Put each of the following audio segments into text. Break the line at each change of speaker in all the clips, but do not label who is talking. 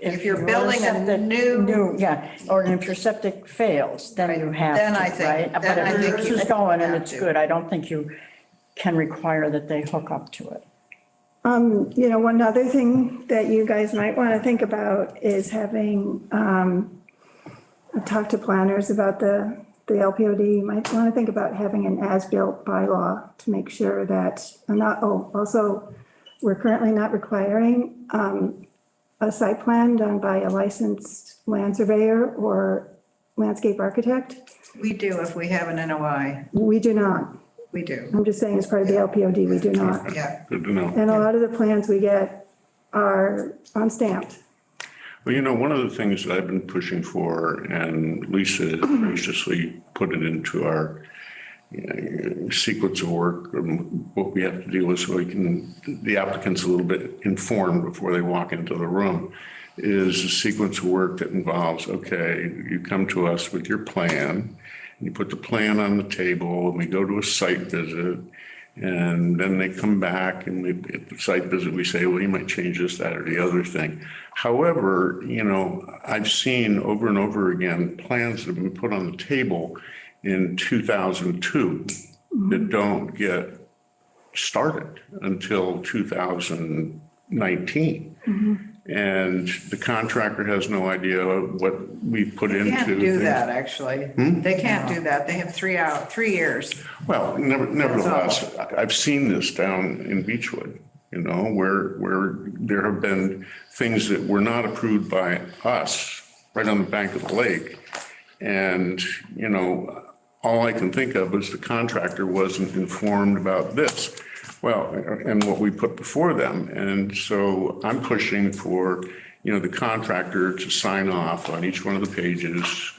If you're building a
septic-
new,
yeah, or if your septic fails, then you have
Then
to,
I think-
right?
then I
But
think
if it's
you
just going and
have
it's
to.
good, I don't think you can require that they hook up to it.
Um, you know, one other thing that you guys might want to think about is having, um, I've talked to planners about the, the LPOD, you might want to think about having an as-built bylaw to make sure that, and not, oh, also, we're currently not requiring, um, a site plan done by a licensed land surveyor or landscape architect.
we do if we have an NOI,
We do not.
we do,
I'm just saying as part of the LPOD, we do not.
yeah.
Good to know.
And a lot of the plans we get are um, unstamped.
Well, you know, one of the things that I've been pushing for, and Lisa has graciously put it into our uh, sequence of work, um, what we have to deal with so we can, the applicant's a little bit informed before they walk into the room, is a sequence of work that involves, okay, you come to us with your plan, you put the plan on the table, and we go to a site visit, and then they come back and we, at the site visit, we say, well, you might change this, that, or the other thing. However, you know, I've seen over and over again, plans that have been put on the table in 2002
Mm-hmm.
that don't get started until 2019.
Mm-hmm.
And the contractor has no idea what we put
They
into.
Can't do
things.
that, actually. They can't do that. They have three out, three years.
Well, never- nevertheless, I- I've seen this down in Beechwood, you know, where, where there have been things that were not approved by us right on the bank of the lake. And, you know, all I can think of is the contractor wasn't informed about this. Well, and what we put before them. And so I'm pushing for, you know, the contractor to sign off on each one of the pages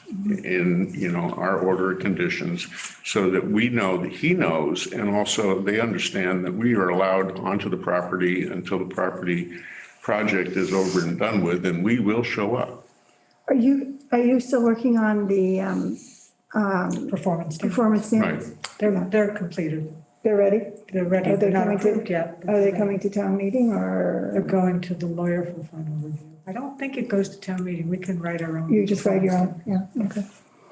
in, you know, our order of conditions so that we know that he knows and also they understand that we are allowed onto the property until the property project is over and done with and we will show up.
Are you, are you still working on the um,
performance. standards.
performance
Right.
standards?
They're, they're completed.
They're ready?
They're ready.
Are they
They're not
coming to-
approved yet.
Are they coming to town meeting
They're
or
going to the lawyer for final review. I don't think it goes to town meeting. We can write our own.
you just write your own? Yeah, okay.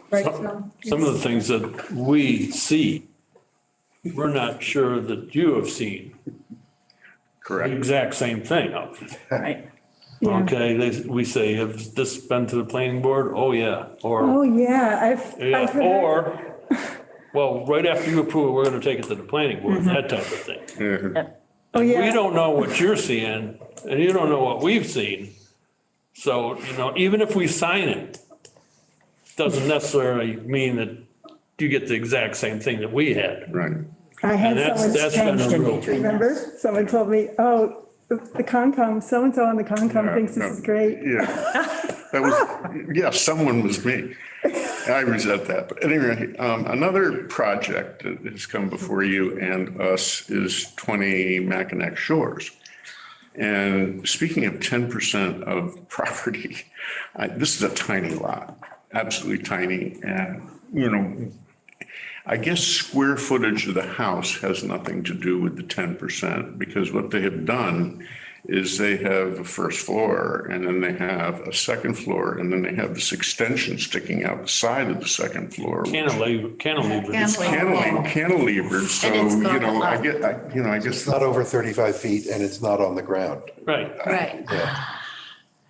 Right, Tom?
Some of the things that we see, we're not sure that you have seen the
Correct.
exact same thing of.
Right.
Okay, they, we say, has this been to the planning board? Oh, yeah.
Oh,
Or,
yeah, I've, I've
yeah,
heard.
or, well, right after you approve, it, we're gonna take it to the planning board, that type of thing.
Yeah.
Oh,
We
Mm-hmm. yeah,
don't know what you're seeing and you don't know what we've seen. So, you know, even if we sign it, doesn't necessarily mean that you get the exact same thing that we had.
Right.
I had
And that's,
someone,
that's been
changed
a
in
rule.
between.
remember, someone told me, oh, the the Concom, so-and-so on the Concom thinks this is great.
Yeah. That was, yeah, someone was me. I resent that. But anyway, um, another project that has come before you and us is 20 Mackinac Shores. And speaking of 10% of property, I- this is a tiny lot, absolutely tiny. And, you know, I guess square footage of the house has nothing to do with the ten percent, because what they have done is they have a first floor, and then they have a second floor, and then they have this extension sticking out the side of the second floor. which-
Cantilever, cantilevers.
Cantilever.
Cantilever, cantilevered, so,
it's
you
not
know, I
allowed.
get, I, you know, I guess,
It's not over 35 feet and it's not on the ground.
right.
Right.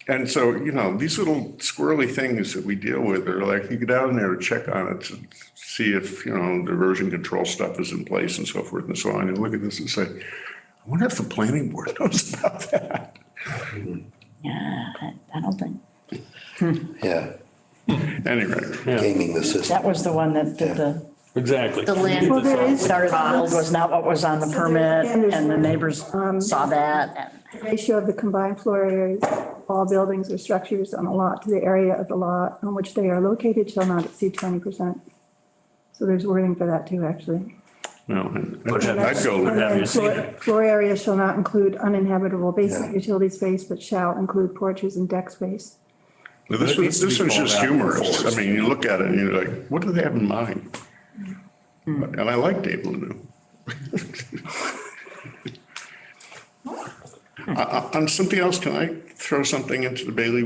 and so, you know, these little squirrely things that we deal with are like, you get out in there to check on it to see if, you know, the erosion control stuff is in place and so forth and so on, and look at this and say, I wonder if the planning board knows about that.
Yeah, that- I don't think,
Yeah,
Anyway,
gaming the system.
that was the one that did the,
Exactly.
The land was all wood
started the build
box.
was not what was on the permit and the neighbors
um,
saw that and.
Ratio of the combined floor areas, of all buildings or structures on a lot to the area of the lot on which they are located shall not exceed 20%. So there's wording for that too, actually.
no,
have-
I'd go with
have
that.
you seen
Floor floor area shall not include uninhabitable basement utility space, but shall include porches and deck space.
But This was, this was just humorous. I mean, you look at it and you're like, what do they have in mind? And I like Dave Lanu. Uh, uh, On something else, can I throw something into the Bailey